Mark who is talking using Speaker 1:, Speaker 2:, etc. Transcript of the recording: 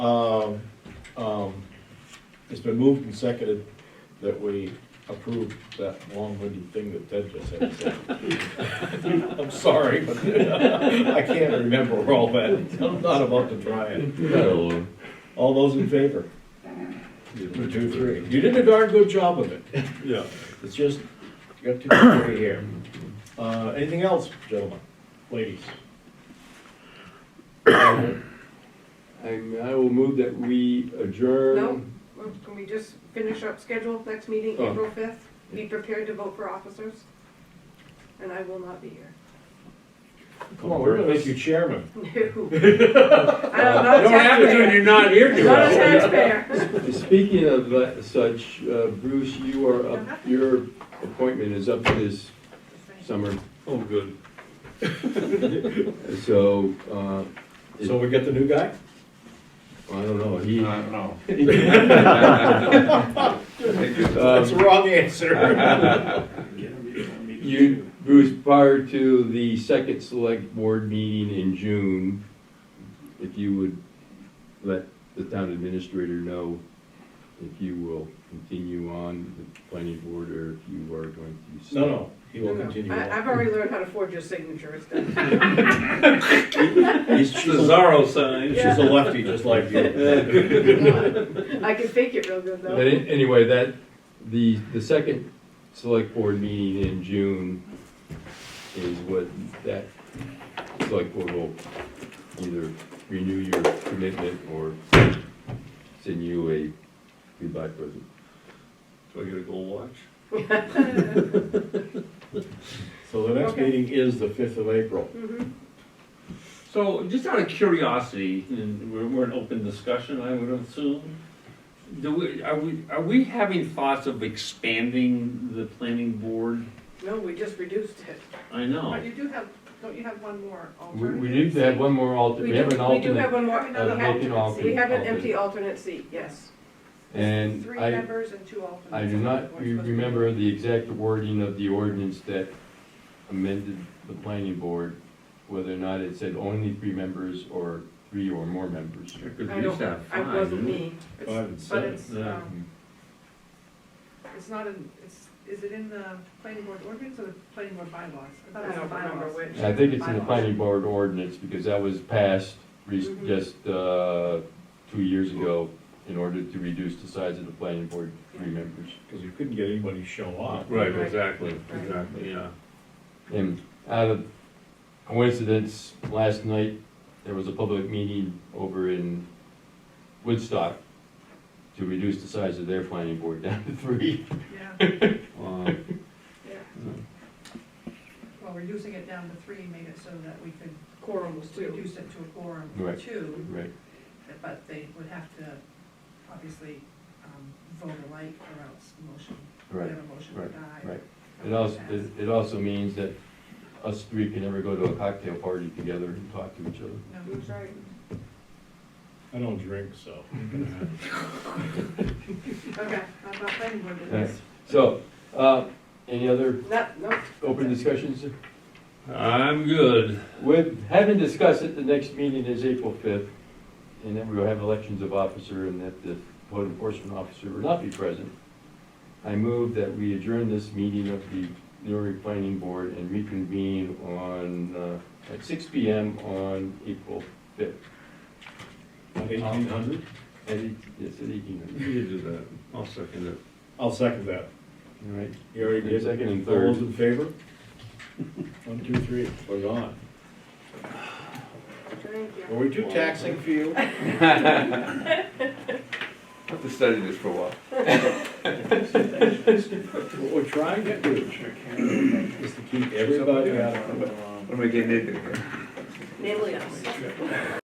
Speaker 1: Um, um, It's been moved and seconded that we approve that long-winded thing that Ted just had to say. I'm sorry, but I can't remember all that. I'm not about to try it. All those in favor? One, two, three. You did a darn good job of it.
Speaker 2: Yeah.
Speaker 1: It's just, you got too three here. Uh, anything else, gentlemen, ladies?
Speaker 2: And I will move that we adjourn.
Speaker 3: No, Well, can we just finish up schedule, next meeting,
Speaker 2: Oh.
Speaker 3: April fifth? Be prepared to vote for officers, and I will not be here.
Speaker 1: Come on, we're gonna make you chairman.
Speaker 3: No. I'm not a taxpayer.
Speaker 4: not here
Speaker 3: I'm Not a taxpayer.
Speaker 2: Speaking of that- such, uh, Bruce, you are up, your appointment is up this summer,
Speaker 4: Oh, good.
Speaker 2: so, uh,
Speaker 1: So we get the new guy?
Speaker 2: I don't know, he.
Speaker 4: no.
Speaker 1: That's the
Speaker 2: um,
Speaker 1: wrong answer.
Speaker 2: You, Bruce, prior to the second select board meeting in June, if you would let the town administrator know if you will continue on the planning board or if you are going to. stay.
Speaker 1: No, no, he will
Speaker 3: No, no.
Speaker 1: continue
Speaker 3: I,
Speaker 1: on.
Speaker 3: I've already learned how to forge your signature, it's done.
Speaker 1: He's,
Speaker 4: It's
Speaker 1: she's
Speaker 4: the
Speaker 1: a
Speaker 4: Zorro sign.
Speaker 1: she's a lefty, just like you.
Speaker 3: I can fake it real good
Speaker 2: But
Speaker 3: though.
Speaker 2: an- anyway, that, the, the second select board meeting in June is what that select board will either renew your commitment or send you a goodbye present.
Speaker 4: Do I get a gold watch?
Speaker 3: Mm-hmm.
Speaker 1: So the next
Speaker 3: Okay.
Speaker 1: meeting is the fifth of April.
Speaker 3: Mhm.
Speaker 4: So, just out of curiosity, and we're, we're in open discussion, I would assume, do we, are we, are we having thoughts of expanding the planning board?
Speaker 3: No, we just reduced it.
Speaker 4: I
Speaker 3: But
Speaker 4: know.
Speaker 3: you do have, don't you have one more
Speaker 2: Oh. We,
Speaker 3: alternate?
Speaker 2: we need to have one more alternate, we
Speaker 3: do-
Speaker 2: have an
Speaker 3: We do have
Speaker 2: alternate,
Speaker 3: one more,
Speaker 2: uh, vacant alternate.
Speaker 3: we have an empty alternate seat, yes.
Speaker 2: and
Speaker 3: Three
Speaker 2: I,
Speaker 3: members and two alternates.
Speaker 2: I do not re- remember the exact wording of the ordinance that amended the planning board, whether or not it said only three members or three or more members.
Speaker 4: Because
Speaker 3: I
Speaker 4: we used to have
Speaker 3: don't, I
Speaker 4: five. didn't
Speaker 3: wasn't
Speaker 4: we?
Speaker 3: me. It's-
Speaker 1: Five and
Speaker 3: But
Speaker 1: seven.
Speaker 3: it's,
Speaker 4: yeah.
Speaker 3: um, it's not in, it's, is it in the planning board ordinance or the planning board bylaws? I thought it was the bylaws.
Speaker 2: And I think it's in the planning board ordinance, because that was passed re-
Speaker 3: Mhm.
Speaker 2: just, uh, two years ago in order to reduce the size of the planning board, to three members.
Speaker 1: Because you couldn't get anybody to show up.
Speaker 4: Right,
Speaker 3: Right.
Speaker 4: exactly,
Speaker 3: Right.
Speaker 4: exactly, yeah.
Speaker 2: And out of coincidence, last night, there was a public meeting over in Woodstock to reduce the size of their planning board down to three.
Speaker 5: Yeah,
Speaker 4: Wow.
Speaker 5: yeah. Well, reducing it down to three made it so that we could
Speaker 3: Quorum was two.
Speaker 5: reduce it to a quorum
Speaker 2: Right.
Speaker 5: of two,
Speaker 2: Right.
Speaker 5: but they would have to obviously um, vote alike or else motion,
Speaker 2: Right,
Speaker 5: whatever motion would die.
Speaker 2: right. It also, it- it also means that us three can never go to a cocktail party together and talk to each other.
Speaker 5: No.
Speaker 3: I'm sorry.
Speaker 1: I don't drink, so.
Speaker 5: Okay, I thought planning board did
Speaker 2: Right.
Speaker 5: this.
Speaker 2: So, uh, any other
Speaker 3: No, no,
Speaker 2: open discussions?
Speaker 4: I'm good.
Speaker 2: With, having discussed it, the next meeting is April fifth, and then we'll have elections of officer and that the code enforcement officer will not be present. I move that we adjourn this meeting of the Newry Planning Board and reconvene on, uh, at six P M on April fifth.
Speaker 1: Eighteen hundred?
Speaker 2: At eight, yes, at eighteen hundred,
Speaker 4: You do that. I'll second it.
Speaker 1: I'll second that.
Speaker 2: all right?
Speaker 1: You already did.
Speaker 2: Second and
Speaker 1: All those
Speaker 2: third.
Speaker 1: in favor? One, two, three, we're gone.
Speaker 3: thank you.
Speaker 1: Are we too taxing for you?
Speaker 6: Have to study this for a while.
Speaker 1: What we're trying to do is to keep everybody out of
Speaker 6: What am I getting into here?
Speaker 3: Namely us.